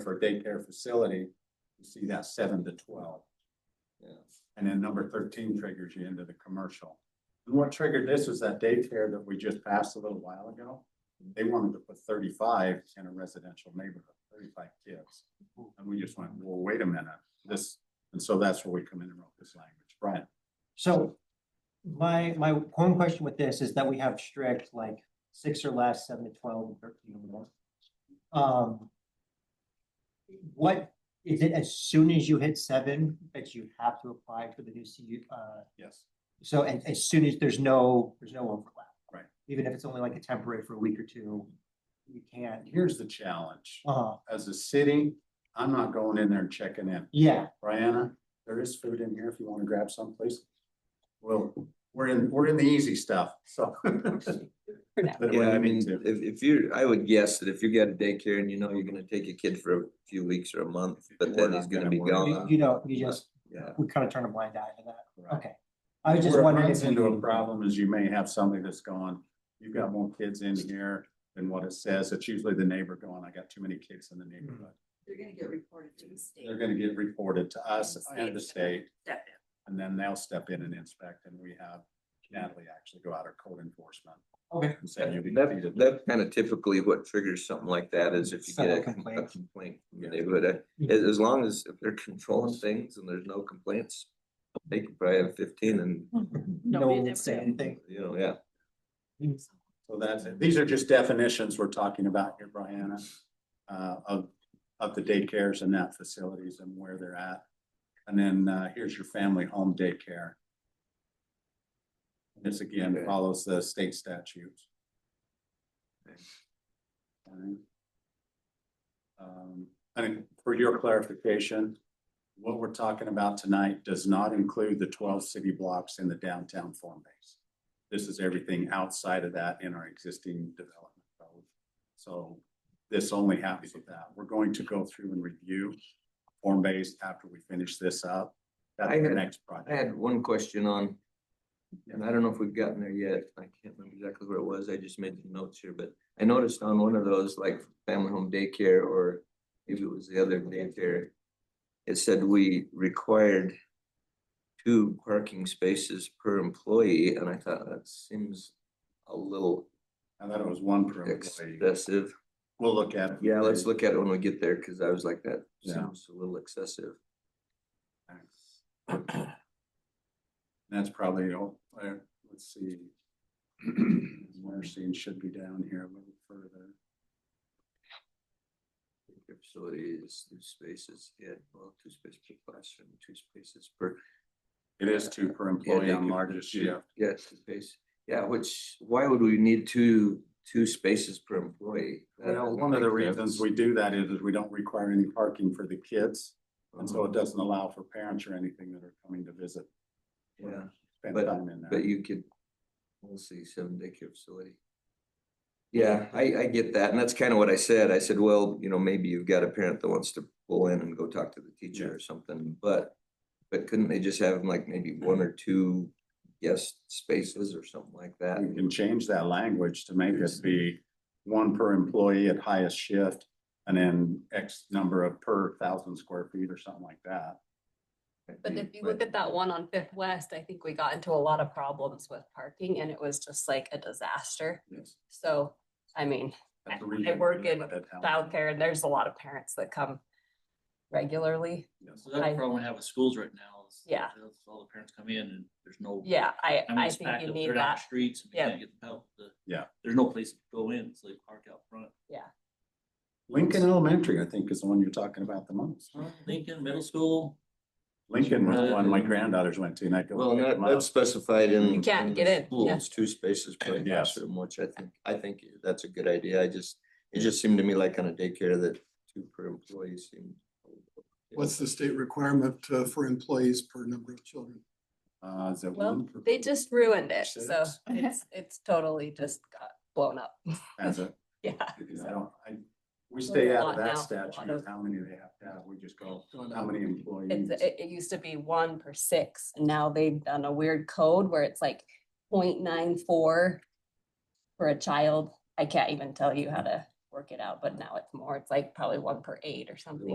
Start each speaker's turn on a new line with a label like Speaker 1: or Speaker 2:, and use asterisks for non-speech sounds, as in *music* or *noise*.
Speaker 1: for a daycare facility, you see that seven to twelve.
Speaker 2: Yeah.
Speaker 1: And then number thirteen triggers you into the commercial. And what triggered this was that daycare that we just passed a little while ago. They wanted to put thirty-five in a residential neighborhood, thirty-five kids. And we just went, well, wait a minute, this, and so that's where we come in and wrote this language, Brian.
Speaker 3: So my, my one question with this is that we have strict like six or less, seven to twelve, and thirteen or more. Um. What, is it as soon as you hit seven that you have to apply for the new CU, uh,
Speaker 1: Yes.
Speaker 3: so and as soon as there's no, there's no overlap?
Speaker 1: Right.
Speaker 3: Even if it's only like a temporary for a week or two, you can't,
Speaker 1: Here's the challenge.
Speaker 3: uh,
Speaker 1: As a city, I'm not going in there and checking in. *laughs*
Speaker 3: yeah,
Speaker 1: Brianna, there is food in here if you want to grab some, please. Well, we're in, we're in the easy stuff, so. *laughs* But we
Speaker 2: Yeah, I mean,
Speaker 1: need
Speaker 2: if,
Speaker 1: to.
Speaker 2: if you, I would guess that if you get a daycare and you know you're gonna take a kid for a few weeks or a month, but
Speaker 1: We're
Speaker 2: then
Speaker 1: not
Speaker 2: he's gonna
Speaker 1: gonna
Speaker 2: be
Speaker 1: worry.
Speaker 3: you,
Speaker 2: gone.
Speaker 3: you know, you just,
Speaker 2: Yeah,
Speaker 3: we kind of turn a blind eye to that,
Speaker 1: Right.
Speaker 3: okay. I was just
Speaker 1: Where it
Speaker 3: wondering.
Speaker 1: runs
Speaker 3: if we
Speaker 1: Into a
Speaker 3: can-
Speaker 1: problem is you may have somebody that's gone, you've got more kids in here than what it says. It's usually the neighbor going, I got too many kids in the neighborhood.
Speaker 3: Mm-hmm.
Speaker 4: They're gonna get reported to the state.
Speaker 1: They're gonna get reported to us and the state,
Speaker 4: That-
Speaker 1: and then they'll step in and inspect, and we have Natalie actually go out our code enforcement.
Speaker 3: Okay.
Speaker 1: And say, you
Speaker 2: that, that's kind of typically what triggers something like that is if you
Speaker 3: *laughs*
Speaker 2: get a
Speaker 3: Several
Speaker 2: com- a
Speaker 3: complaints.
Speaker 2: complaint from the
Speaker 1: Yeah.
Speaker 2: neighborhood. Uh,
Speaker 3: Mhm.
Speaker 2: As, as long as if they're controlling things and there's no complaints, they could probably have fifteen and,
Speaker 3: No
Speaker 5: Nobody
Speaker 3: one
Speaker 5: ever
Speaker 3: would say
Speaker 5: did.
Speaker 3: anything.
Speaker 2: you know, yeah.
Speaker 1: So that's it. These are just definitions we're talking about here, Brianna, uh, of, of the daycares and that facilities and where they're at. And then, uh, here's your family home daycare. This again
Speaker 2: Okay.
Speaker 1: follows the state statutes.
Speaker 2: Okay.
Speaker 1: Alright. Um, and for your clarification, what we're talking about tonight does not include the twelve city blocks in the downtown form base. This is everything outside of that in our existing development code. So this only happens with that. We're going to go through and review form based after we finish this up. That's
Speaker 2: I
Speaker 1: the
Speaker 2: had-
Speaker 1: next
Speaker 2: I
Speaker 1: project.
Speaker 2: had one question on, and I don't know if we've gotten there yet. I can't remember exactly where it was. I just made some notes here, but I noticed on one of those, like family home daycare or maybe it was the other daycare. It said we required two parking spaces per employee, and I thought that seems a little
Speaker 1: I thought it was one per employee.
Speaker 2: excessive.
Speaker 1: We'll look at. it.
Speaker 2: Yeah, let's look at it when we get there, because I was like, that
Speaker 1: Yeah.
Speaker 2: seems a little excessive.
Speaker 1: That's probably, all. uh, let's see. Mercy should be down here a little further.
Speaker 2: Your facility is two spaces, yeah, well, two spaces per classroom, two spaces per.
Speaker 1: It is two per
Speaker 2: yeah,
Speaker 1: employee on
Speaker 2: daycare,
Speaker 1: largest
Speaker 2: two-
Speaker 1: shift.
Speaker 2: Yeah, two space, yeah, which, why would we need two, two spaces per employee? That
Speaker 1: Well,
Speaker 2: doesn't
Speaker 1: one of the
Speaker 2: make sense.
Speaker 1: reasons we do that is, is we don't require any parking for the kids. And so it
Speaker 2: Uh-huh.
Speaker 1: doesn't allow for parents or anything that are coming to visit. or
Speaker 2: Yeah,
Speaker 1: Spend
Speaker 2: but-
Speaker 1: time in there.
Speaker 2: Um, but you could, we'll see, seven daycare facility. Yeah, I, I get that, and that's kind of what I said, I said, well, you know, maybe you've got a parent that wants to pull in and go talk to the teacher or something, but. But couldn't they just have like maybe one or two guest spaces or something like that?
Speaker 1: We can change that language to make it be one per employee at highest shift. And then X number of per thousand square feet or something like that.
Speaker 2: Mm,
Speaker 5: But if you look at that one on Fifth West, I think we got into a lot of problems with parking and it was just like a disaster.
Speaker 1: Yes.
Speaker 5: So, I mean, I- I work in childcare and there's a lot of parents that come regularly.
Speaker 1: Yes.
Speaker 6: So that's
Speaker 5: I-
Speaker 6: the problem we have with schools right now. is
Speaker 5: Yeah.
Speaker 6: that's All the parents come in and there's no.
Speaker 5: Yeah, I,
Speaker 6: mean,
Speaker 5: I
Speaker 6: it's
Speaker 5: think
Speaker 6: packed
Speaker 5: you
Speaker 6: up,
Speaker 5: need
Speaker 6: they're down the
Speaker 5: that.
Speaker 6: Streets and they
Speaker 5: Yeah.
Speaker 6: can't get the help. the-
Speaker 1: Yeah.
Speaker 6: There's no place to go in, so they park out front.
Speaker 1: Lincoln Elementary, I think, is the one you're talking about the most.
Speaker 5: Mm-hmm.
Speaker 6: Lincoln Middle School,
Speaker 1: Lincoln was the one my granddaughters went to and I go.
Speaker 2: Well,
Speaker 1: pick
Speaker 2: that,
Speaker 1: them up.
Speaker 2: that's specified in.
Speaker 5: You can't
Speaker 2: the
Speaker 5: get in, yeah.
Speaker 2: Schools, two spaces per
Speaker 1: Yes.
Speaker 2: classroom, which I think, I think that's a good idea, I just, it just seemed to me like on a daycare that two per employee seemed.
Speaker 7: What's the state requirement uh, for employees per number of children?
Speaker 1: Uh, is it
Speaker 5: Well,
Speaker 1: one? per-
Speaker 5: they just ruined it. So
Speaker 1: Six.
Speaker 5: it's, it's totally just got blown up.
Speaker 1: As a,
Speaker 5: *laughs* Yeah.
Speaker 1: because I don't, I, we stay out of
Speaker 5: lot now,
Speaker 1: that
Speaker 5: a lot
Speaker 1: statute,
Speaker 5: of-
Speaker 1: how many they have to have, we just go, how many employees?
Speaker 5: It's, it, it used to be one per six, and now they've done a weird code where it's like 0.94 for a child. I can't even tell you how to work work it out, but now it's more, it's like probably one per eight or something.